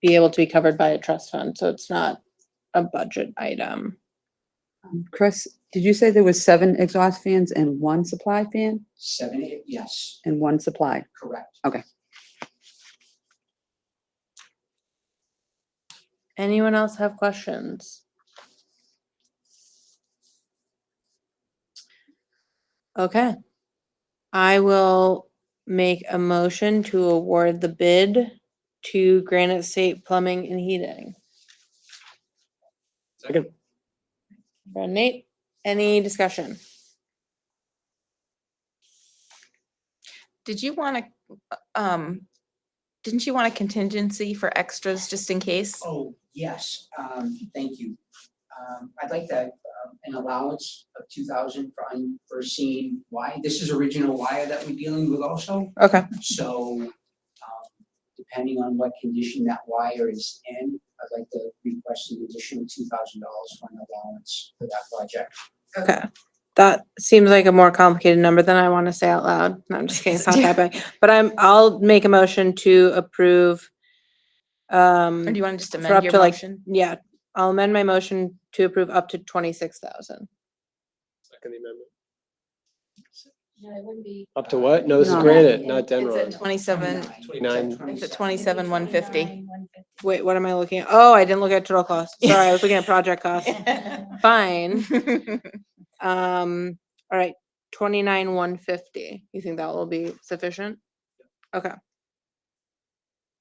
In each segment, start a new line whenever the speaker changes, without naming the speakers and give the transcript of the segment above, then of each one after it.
be able to be covered by a trust fund, so it's not a budget item.
Um, Chris, did you say there was seven exhaust fans and one supply fan
Seven, eight, yes,
and one supply?
correct.
Anyone else have questions? Okay. I will make a motion to award the bid to Granite State Plumbing and Heating.
Second.
Brad Nate, any discussion?
Did you want to, um, didn't you want a contingency for extras just in case?
Oh, yes, um, thank you. Um, I'd like that, um, an allowance of two thousand for unforeseen wire. This is original wire that we're dealing with also.
Okay.
So, um, depending on what condition that wire is in, I'd like to request an additional two thousand dollars for an allowance for that project.
Okay, that seems like a more complicated number than I want to say out loud. No, I'm just kidding, it's not that big. But I'm, I'll make a motion to approve. Um,
Or do you want to just
For
amend
up
your
to, like-
motion?
yeah, I'll amend my motion to approve up to twenty-six thousand.
Second amendment.
No, it wouldn't be.
Up to what? No, this is
No.
granite, not
It's at
Denron.
twenty-seven,
Twenty-nine.
Twenty-nine.
it's at twenty-seven, one fifty.
Wait, what am I looking at? Oh, I didn't look at total cost. Sorry, I was looking at project cost. Fine. Um, all right, twenty-nine, one fifty. You think that will be sufficient? Okay.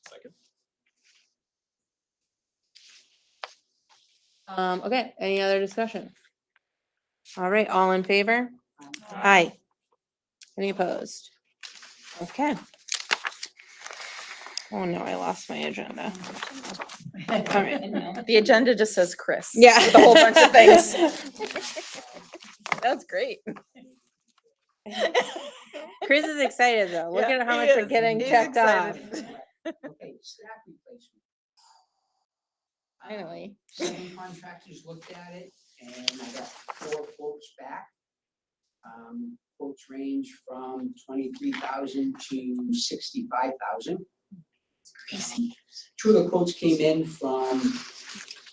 Second.
Um, okay, any other discussion? All right, all in favor? Aye. Any opposed? Okay. Oh no, I lost my agenda. All right.
The agenda just says Chris.
Yeah.
With a whole bunch of things. That's great.
Chris is excited though. Look
Yeah,
at how
he
much we're
is.
getting
He's
checked off.
excited.
Okay, staff replacement. Um,
Finally.
Seven contractors looked at it and I got four quotes back. Um, quotes range from twenty-three thousand to sixty-five thousand. Crazy. Two of the quotes came in from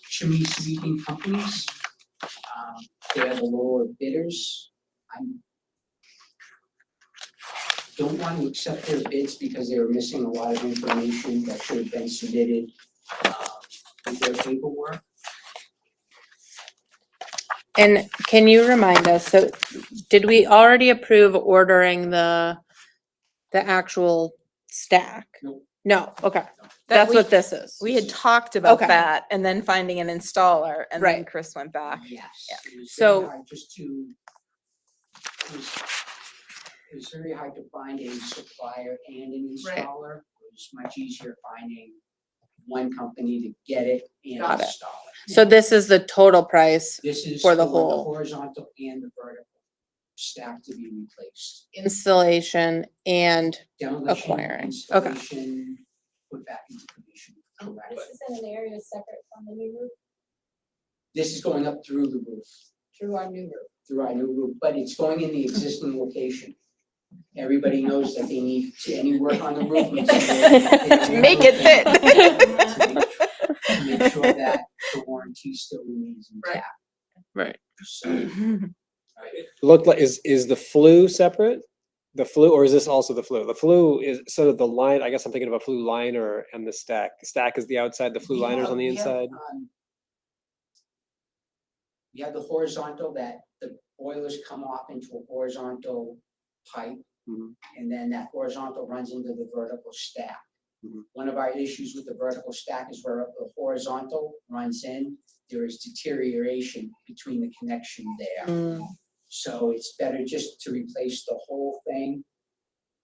chimney sweeping companies. Um, they're the lower bidders. I'm don't want to accept their bids because they were missing a lot of information that should have been submitted, uh, with their paperwork.
And can you remind us, so did we already approve ordering the, the actual stack?
Nope.
No, okay,
That
that's
we,
what this is.
we had talked about
Okay.
that and then finding an installer and then
Right.
Chris went back.
Yes.
Yeah.
it was very
So-
hard Just to. it was- It was very hard to find a supplier and an
Right.
installer. It was much easier finding one company to get it and
Got it.
install it.
So this is the total price
This is
For the whole-
Horizontal and the vertical stack to be replaced.
installation and,
Demolition,
Acquiring, okay.
Installation, put back into commission, correct?
Oh, This is in an area separate from the new roof,
This is going up through the roof.
through our new roof.
through our new roof, but it's going in the existing location. Everybody knows that they need to, any work on the roof. needs to go in.
Make it fit.
To make- to Make sure that the warranty still remains intact.
Right.
So,
Looked like, is, is the flu separate? The flu, or is this also the flu? The flu is sort of the line, I guess I'm thinking of a flu liner and the stack. The stack is the outside, the flu
we
liner's
have-
on the
we have,
inside.
um, We have the horizontal that the boilers come off into a horizontal pipe.
Mhm.
And then that horizontal runs into the vertical stack.
Mhm.
One of our issues with the vertical stack is where the horizontal runs in, there is deterioration between the connection there.
mm,
So it's better just to replace the whole thing.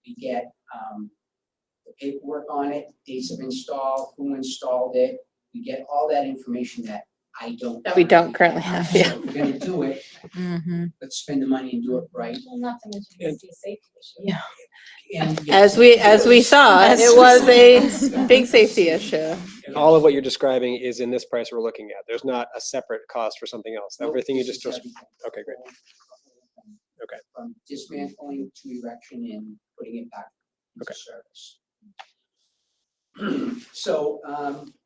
We get, um, the paperwork on it, dates of install, who installed it. We get all that information that I don't.
we don't currently have,
So
yeah.
if we're gonna do it,
Mm-hmm.
let's spend the money and do it right.
Well, not to mention it's a safety issue.
Yeah.
And
As we, as we saw,
As
it
we
was
saw.
a big safety issue.
All of what you're describing is in this price we're looking at. There's not a separate cost for something else. Everything you just, okay, great. Okay.
From dismantling to erection and putting it back into service. So, um,